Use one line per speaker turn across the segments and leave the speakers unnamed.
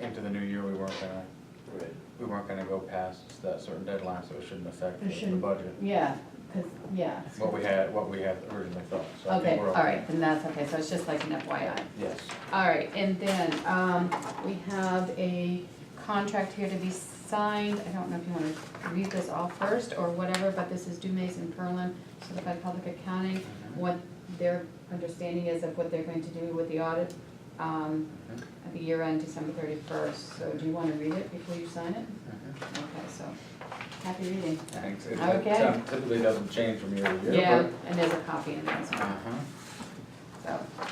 into the new year, we weren't gonna,
Right.
we weren't gonna go past that certain deadline, so it shouldn't affect
It
the- the
shouldn't.
budget.
Yeah, because, yeah.
What we had, what we had originally thought, so I
Okay,
think
all
we're
right, then that's okay, so it's just like an FYI.
Yes,
All right, and then, um, we have a contract here to be signed, I don't know if you wanna read this all first or whatever, but this is Dumas and Perlin, certified public accounting, what their understanding is of what they're going to do with the audit, um,
Mhm.
at the year end, December thirty-first, so do you wanna read it before you sign it?
Mhm.
Okay, so, happy reading.
thanks. It-
Okay.
it Typically doesn't change from year to year.
Yeah,
but-
and there's a copy in there as well,
Uh-huh.
so.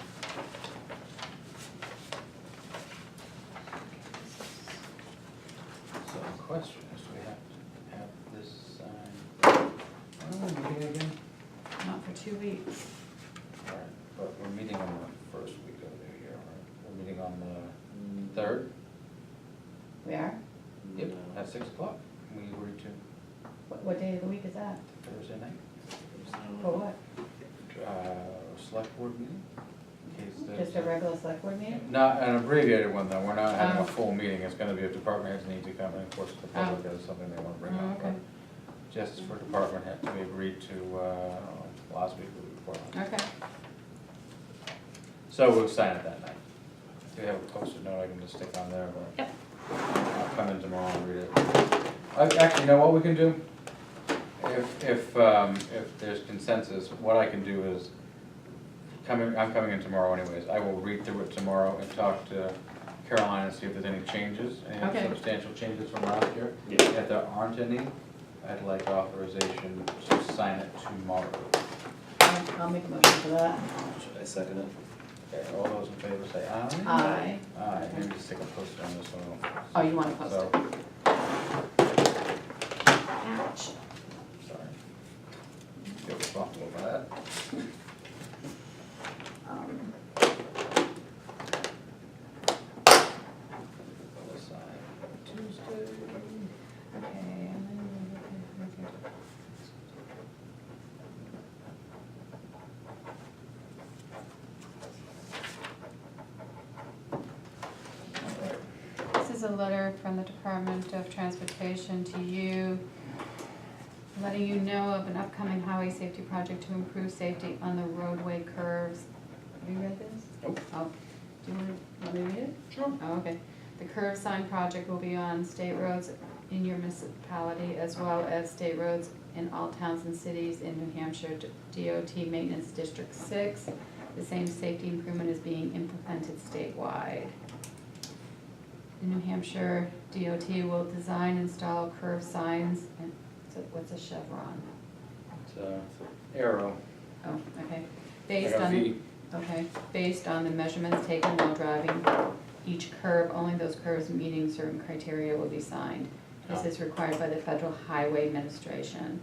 So the question is, do we have to have this signed? When are we meeting again?
Not for two weeks.
All right, But we're meeting on the first week of the year, right? We're meeting on the third?
We are?
Yep,
No.
at six o'clock. We were to
What, what day of the week is that?
Thursday night,
For what?
uh, select board meeting? in case there's-
Just a regular select board meeting?
Not an abbreviated one, though, we're not having a
Oh.
full meeting, it's gonna be if department heads need to come, and of course, the public has something they wanna bring
Oh,
up. but
okay.
Just for department head to be agreed to, uh, last week or the week before.
Okay,
So we'll sign it that night. If you have a post-it note, I can just stick on there, but.
Yep.
I'll come in tomorrow and read it. I- Actually, you know what we can do? If, if, um, if there's consensus, what I can do is, coming, I'm coming in tomorrow anyways, I will read through it tomorrow and talk to Caroline and see if there's any changes, any
Okay.
substantial changes from last year.
Yeah.
If there aren't any, I'd like authorization to sign it tomorrow.
I'll, I'll make a motion for that.
Should I second it?
Okay, all those in favor say aye.
Aye.
Aye, maybe Uh, just stick a post on this one.
Oh, you wanna post
So,
it? Ouch.
sorry. Feel responsible for that.
Um,
Other side.
Tuesday. Okay, and then, okay, okay.
All right.
This is a letter from the Department of Transportation to you, letting you know of an upcoming highway safety project to improve safety on the roadway curves. Have you read this?
Nope.
Oh, do you want, want me to read it?
Sure.
Oh, okay. The curve sign project will be on state roads in your municipality as well as state roads in all towns and cities in New Hampshire DOT Maintenance District Six. The same safety improvement is being implemented statewide. The New Hampshire DOT will design, install curve signs, and, so what's a chevron?
It's, uh, arrow.
Oh, okay.
I
Based
got
on.
V.
Okay, based on the measurements taken while driving, each curve, only those curves meeting certain criteria will be signed. This
Ah.
is required by the Federal Highway Administration.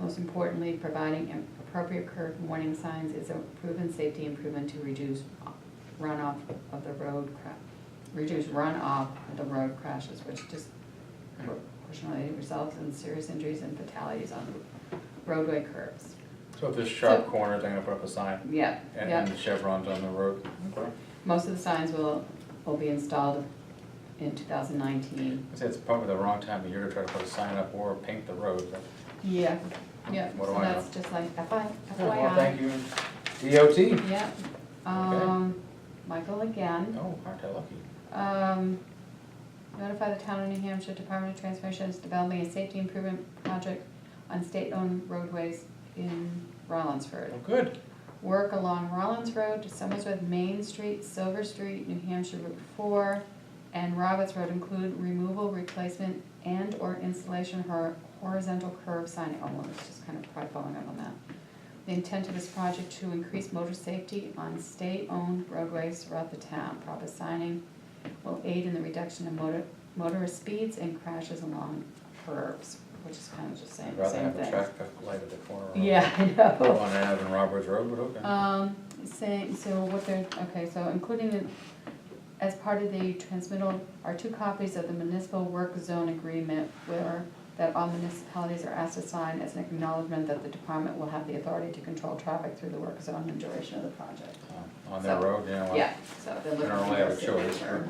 Most importantly, providing appropriate curve warning signs is a proven safety improvement to reduce runoff of the road cra- reduce runoff of the road crashes, which just proportionally results in serious injuries and fatalities on roadway curves.
So if there's sharp
So-
corners, I'm gonna put up a sign
Yeah,
and,
yeah.
and the chevrons on the road. Okay.
Most of the signs will, will be installed in two thousand nineteen.
I say it's probably the wrong time of year to try to put a sign up or paint the road, but.
Yeah. Yeah,
What do
so
I know?
that's just like FY,
Oh, Well,
FYI.
thank you, DOT.
Yeah, um, Michael again,
Oh, aren't I lucky?
um, notify the town of New Hampshire Department of Transportation is developing a safety improvement project on state-owned roadways in Rollinsford.
Oh, good.
Work along Rollins Road to Somersworth Main Street, Silver Street, New Hampshire Route Four, and Roberts Road include removal, replacement, and/or installation hor- horizontal curb sign. Oh, well, it's just kind of probably following up on that. The intent of this project to increase motor safety on state-owned roadways throughout the town. Proper signing will aid in the reduction of motor, motorist speeds and crashes along curbs, which is kind of just saying
I'd
the
rather
same
have a
thing.
traffic light at the corner. of-
Yeah, I know.
On Avenue Roberts Road, but okay.
Um, saying, so what they're, okay, so including the, as part of the transmittal are two copies of the municipal work zone agreement where, that all municipalities are asked to sign as an acknowledgement that the department will have the authority to control traffic through the work zone and duration of the project.
Uh, On their
so-
road, yeah. well,
Yeah, so they're
They
looking
don't really
for
have
a
a choice,
signature.